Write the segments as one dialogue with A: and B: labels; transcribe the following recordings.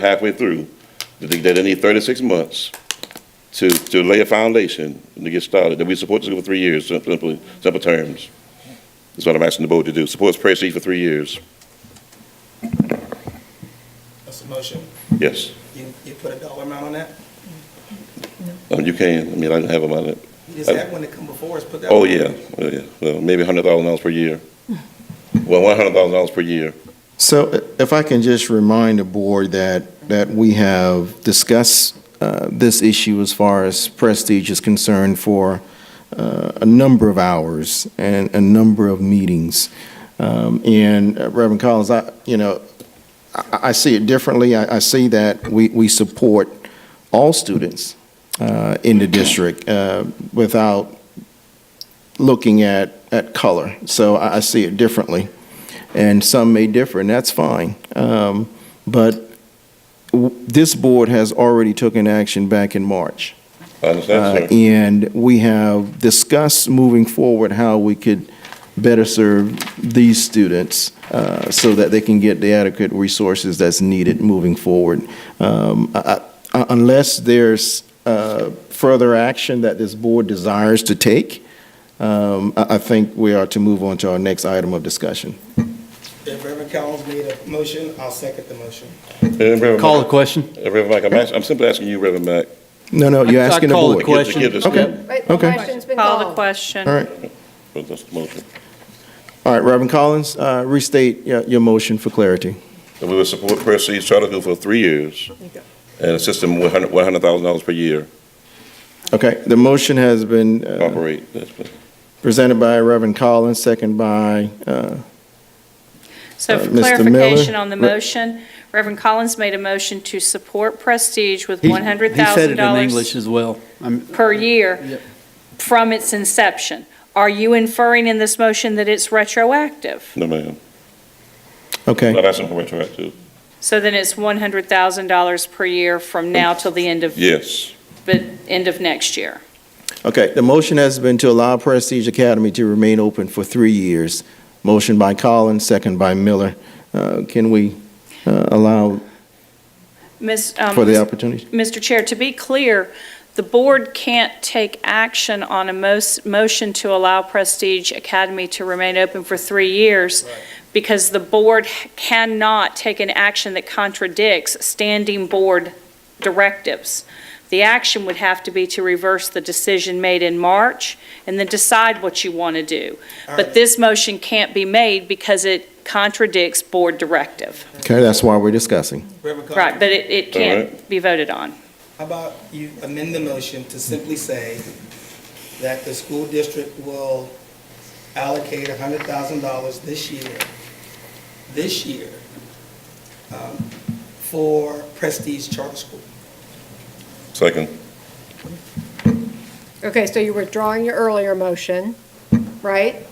A: halfway through, that they, that they need thirty-six months to, to lay a foundation and to get started, that we support this for three years, sim- simply, simple terms. That's what I'm asking the board to do, supports Prairie City for three years,
B: That's a motion.
A: yes.
B: You, you put a dollar amount on that?
A: Um, you can, I mean, I don't have them on it.
B: You just had one to come before us, put that.
A: Uh, Oh,
B: one on.
A: yeah, oh, yeah, well, maybe a hundred thousand dollars per year. Well, one hundred thousand dollars per year,
C: So i- if I can just remind the board that, that we have discussed uh, this issue as far as Prestige is concerned for uh, a number of hours and a number of meetings. Um, And uh, Reverend Collins, I, you know, I, I see it differently. I, I see that we, we support all students uh, in the district uh, without looking at, at color. So I, I see it differently and some may differ, and that's fine. Um, But w- this board has already taken action back in March.
A: I
C: Uh,
A: understand, sir.
C: And we have discussed moving forward how we could better serve these students uh, so that they can get the adequate resources that's needed moving forward. Um, I- I- Unless there's uh, further action that this board desires to take, um, I I think we are to move on to our next item of discussion.
B: If Reverend Collins made a motion, I'll second the motion.
A: And Reverend
D: Call the
A: Mac-
D: question.
A: Reverend Mac, I'm asking, I'm simply asking you, Reverend Mac.
C: No, no, you're
D: I- I
C: asking the
D: call the
C: board.
A: to give- to
D: Question.
A: give this-
C: Okay.
E: Right, the
C: Okay.
E: question's been
F: Call the
E: called.
F: question.
C: All right,
A: for this motion.
C: all right, Reverend Collins, uh, restate your, your motion for clarity.
A: And we will support Prestige Charter School for three years and assist them with hundred, one hundred thousand dollars per year
C: Okay, the motion has been
A: to
C: uh,
A: operate. That's-
C: presented by Reverend Collins, second by, uh,
F: So
C: Uh,
F: for
C: Mr. Miller?
F: clarification on the
C: Re-
F: motion, Reverend Collins made a motion to support Prestige with
D: He- He said it in English
F: $100,000
D: as well. I'm-
F: per
D: Yep.
F: year from its inception. Are you inferring in this motion that it's retroactive?
A: No, ma'am.
C: okay,
A: Not asking for retroactive.
F: So then it's $100,000 per year from now till the end of,
A: Yes,
F: but end of next year.
C: okay. The motion has been to allow Prestige Academy to remain open for three years. Motion by Collins, second by Miller. Uh, Can we uh, allow
F: Ms., um,
C: for the opportunity?
F: Mr. Chair, to be clear, the board can't take action on a mos- motion to allow Prestige Academy to remain open for three years because the board cannot take an action that contradicts standing board directives. The action would have to be to reverse the decision made in March and then decide what you want to do.
B: All
F: But
B: right.
F: this motion can't be made because it contradicts board directive.
C: Okay, that's why we're discussing.
B: Reverend Collins.
F: Right, but it, it can't be voted on.
B: How about you amend the motion to simply say that the school district will allocate hundred thousand dollars this year, this year, um, for Prestige Charter School?
A: second.
E: Okay, so you're withdrawing your earlier motion, right?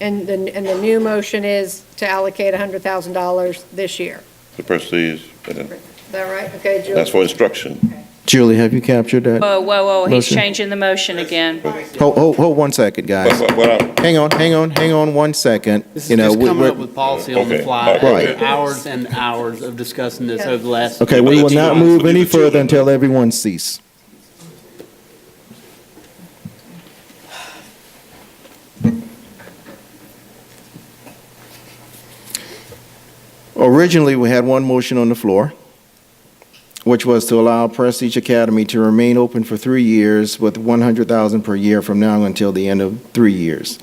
E: And then, and the new motion is to allocate $100,000 this year.
A: The Prestige, uh,
E: Is that right? Okay, Julie?
A: that's for instruction.
C: Julie, have you captured that?
F: Whoa, whoa, whoa, he's
C: Motion.
F: changing the motion again.
C: Hold, hold, hold one second,
A: But-
C: guys.
A: but- but I-
C: Hang on, hang on, hang on one second.
D: This
C: You
D: is
C: know,
D: just
C: we-
D: coming
C: we're-
D: up with policy on the
A: Okay,
D: fly.
A: okay.
C: Right.
D: Hours and hours of discussing this over the last.
C: Okay, we will not move any
A: Leave it to you.
C: further until everyone cease. Originally, we had one motion on the floor, which was to allow Prestige Academy to remain open for three years with 100,000 per year from now until the end of three years.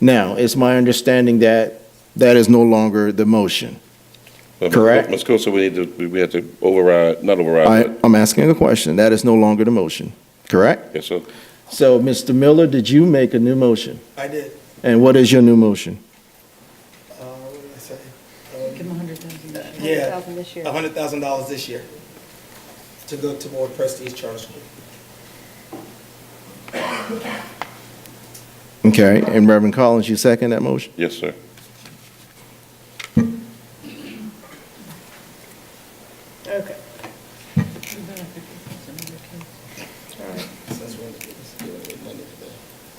C: Now, it's my understanding that that is no longer the motion.
A: but
C: Correct.
A: Ms. Coulter, we need to, we- we have to override, not override,
C: I,
A: but,
C: I'm asking a question. That is no longer the motion, correct?
A: yes, sir.
C: So, Mr. Miller, did you make a new motion?
B: I did,
C: And what is your new motion?
B: uh, what did I say? Give them $100,000. Yeah,
E: $100,000 this year.
B: hundred thousand dollars this year to go toward Prestige Charter School.
C: Okay, and Reverend Collins, you second that motion?
A: Yes, sir.
E: Okay.
B: Since we're in the business of dealing with money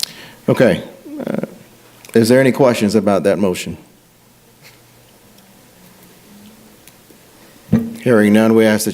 B: today.
C: Okay. Uh, Is there any questions about that motion? Hearing none, we ask that